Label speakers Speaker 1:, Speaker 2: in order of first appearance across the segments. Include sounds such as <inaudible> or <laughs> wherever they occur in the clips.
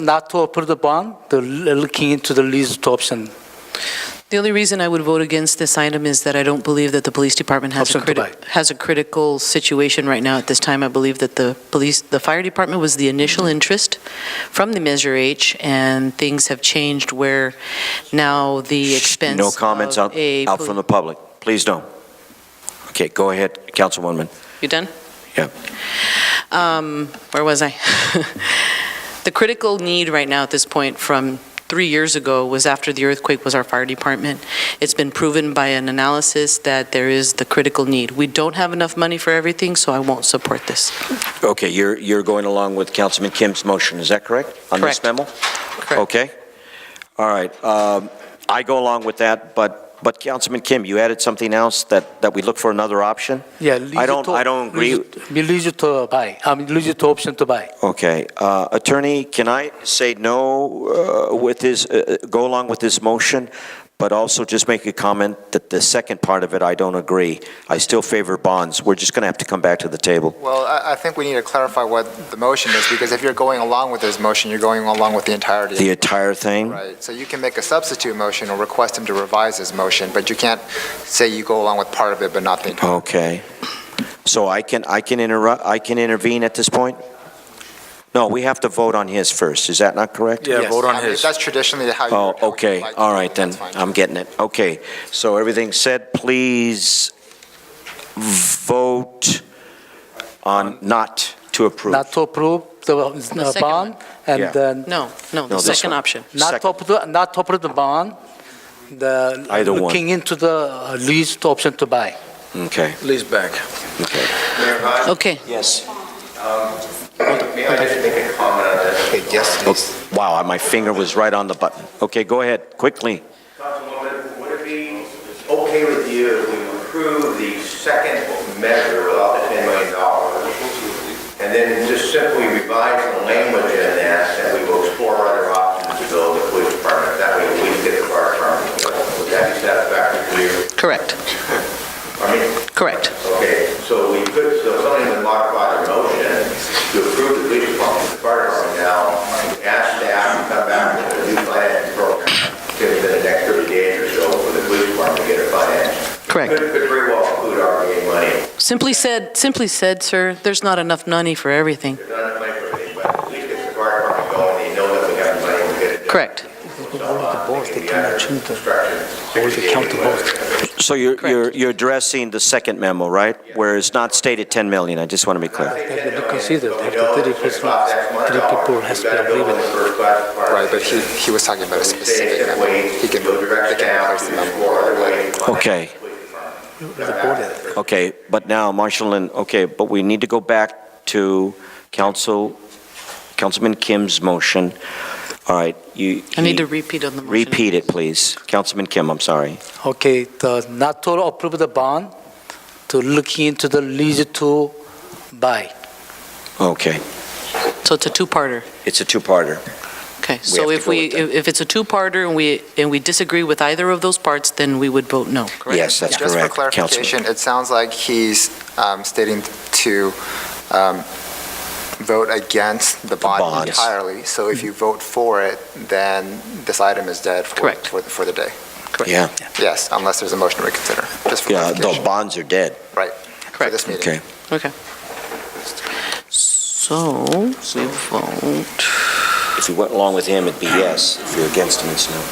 Speaker 1: not to approve the bond, the looking into the lease to option,
Speaker 2: The only reason I would vote against this item is that I don't believe that the police department has a
Speaker 1: Absent to
Speaker 2: criti- has a critical situation right now at this time. I believe that the police, the fire department was the initial interest from the Measure H, and things have changed where now the expense
Speaker 3: No comments
Speaker 2: of
Speaker 3: out,
Speaker 2: a
Speaker 3: out
Speaker 2: poli-
Speaker 3: from the public. Please don't. Okay, go ahead, Councilwoman.
Speaker 2: You done?
Speaker 3: Yeah.
Speaker 2: Um, where was I? <laughs> The critical need right now at this point from three years ago was after the earthquake was our fire department. It's been proven by an analysis that there is the critical need. We don't have enough money for everything, so I won't support this.
Speaker 3: Okay, you're, you're going along with Councilman Kim's motion, is that correct? On this
Speaker 2: Correct.
Speaker 3: memo? Okay. All right. um, I go along with that, but, but Councilman Kim, you added something else that, that we look for another option?
Speaker 1: yeah. lease
Speaker 3: I don't-
Speaker 1: to-
Speaker 3: I don't agree.
Speaker 1: lease- be Lease to buy, I mean, lease to option to buy.
Speaker 3: Okay. uh, Attorney, can I say no uh, with his, uh, uh, go along with this motion, but also just make a comment that the second part of it, I don't agree. I still favor bonds. We're just going to have to come back to the table.
Speaker 4: Well, I, I think we need to clarify what the motion is, because if you're going along with his motion, you're going along with the entirety. of
Speaker 3: The
Speaker 4: it,
Speaker 3: entire thing?
Speaker 4: Right, so you can make a substitute motion or request him to revise his motion, but you can't say you go along with part of it but not the entire.
Speaker 3: Okay. So I can, I can interrupt, I can intervene at this point? No, we have to vote on his first. Is that not correct?
Speaker 4: Yes, I mean, That's traditionally how you.
Speaker 3: Oh,
Speaker 4: how you
Speaker 3: okay,
Speaker 4: like to
Speaker 3: all
Speaker 4: do it,
Speaker 3: right then,
Speaker 4: that's fine.
Speaker 3: I'm getting it. Okay, so everything said, please vote on not to approve.
Speaker 1: Not to approve the uh,
Speaker 2: second
Speaker 1: bond,
Speaker 3: Yeah.
Speaker 1: and then,
Speaker 2: No, no,
Speaker 3: No,
Speaker 2: the
Speaker 3: this
Speaker 2: second
Speaker 3: one.
Speaker 2: option.
Speaker 1: not to
Speaker 3: Second.
Speaker 1: approve, not to approve the bond, the.
Speaker 3: Either one.
Speaker 1: Looking into the uh, lease to option to buy.
Speaker 3: Okay,
Speaker 5: Lee's back.
Speaker 3: okay.
Speaker 2: Okay,
Speaker 3: Yes.
Speaker 5: May I just make a comment on that?
Speaker 4: Okay, yes, it is.
Speaker 3: Wow, my finger was right on the button. Okay, go ahead, quickly.
Speaker 5: Councilwoman, would it be okay with you if we approve the second measure without the $10 million? And then just simply revise the language in that, that we will explore other options to build a police department. That way we can get the fire department. Would that be satisfactory to you?
Speaker 2: correct,
Speaker 5: I mean,
Speaker 2: correct.
Speaker 5: Okay, so we could, so somebody would modify their motion to approve the police department, the fire department now, and ask staff to come back with a new finance program within the next 30 days or so for the police department to get a finance.
Speaker 2: Correct.
Speaker 5: Could could very well include RVA money,
Speaker 2: Simply said, simply said, sir, there's not enough money for everything.
Speaker 5: there's not enough money for everything, but at least if the fire department going, they know that we have the money, we'll get it done.
Speaker 2: Correct,
Speaker 3: So you're, you're, you're addressing the second memo, right? Where it's not stated 10 million, I just want to be clear.
Speaker 1: They have to be considered, if the three person, three people has to agree with it.
Speaker 4: right, but he, he was talking about a specific, amount. he can, they can replace the Oh, number.
Speaker 3: Okay. Okay, but now, Marshall Lin, okay, but we need to go back to Council, Councilman Kim's motion. All right, you.
Speaker 2: I need to repeat on the motion.
Speaker 3: Repeat it, please. Councilman Kim, I'm sorry.
Speaker 1: Okay, the not to approve the bond, to look into the lease to buy.
Speaker 3: Okay,
Speaker 2: So it's a two-parter.
Speaker 3: it's a two-parter.
Speaker 2: Okay, so
Speaker 3: have to
Speaker 2: if
Speaker 3: go
Speaker 2: we,
Speaker 3: with that.
Speaker 2: if if it's a two-parter and we, and we disagree with either of those parts, then we would vote no, correct?
Speaker 3: Yes, that's correct.
Speaker 4: Just for
Speaker 3: Councilman.
Speaker 4: clarification, it sounds like he's um, stating to um, vote against the bond
Speaker 3: bonds.
Speaker 4: entirely. So if you vote for it, then this item is dead for-
Speaker 2: Correct.
Speaker 4: for, for the day.
Speaker 3: Yeah,
Speaker 4: Yes, unless there's a motion to reconsider, just for
Speaker 3: yeah, the
Speaker 4: clarification.
Speaker 3: bonds are dead.
Speaker 4: Right. For
Speaker 2: Correct.
Speaker 4: this meeting.
Speaker 3: Okay.
Speaker 2: Okay. So we vote,
Speaker 3: If you went along with him, it'd be yes. If you're against him, it's no.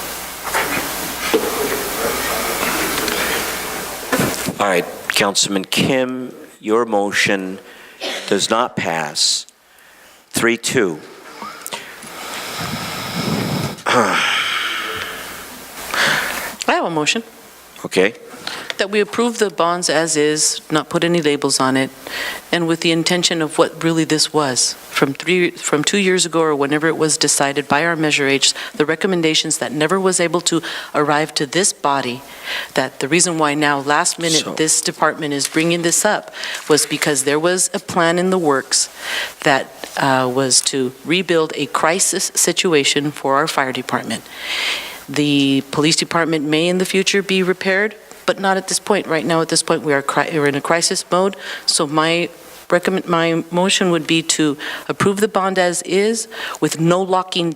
Speaker 3: All right, Councilman Kim, your motion does not pass. 3-2.
Speaker 2: I have a motion
Speaker 3: Okay,
Speaker 2: that we approve the bonds as is, not put any labels on it, and with the intention of what really this was, from three, from two years ago or whenever it was decided by our Measure H, the recommendations that never was able to arrive to this body, that the reason why now, last
Speaker 3: So-
Speaker 2: minute, this department is bringing this up was because there was a plan in the works that uh, was to rebuild a crisis situation for our fire department. The police department may in the future be repaired, but not at this point. Right now, at this point, we are, cri- we're in a crisis mode, so my recommend, my motion would be to approve the bond as is with no locking down.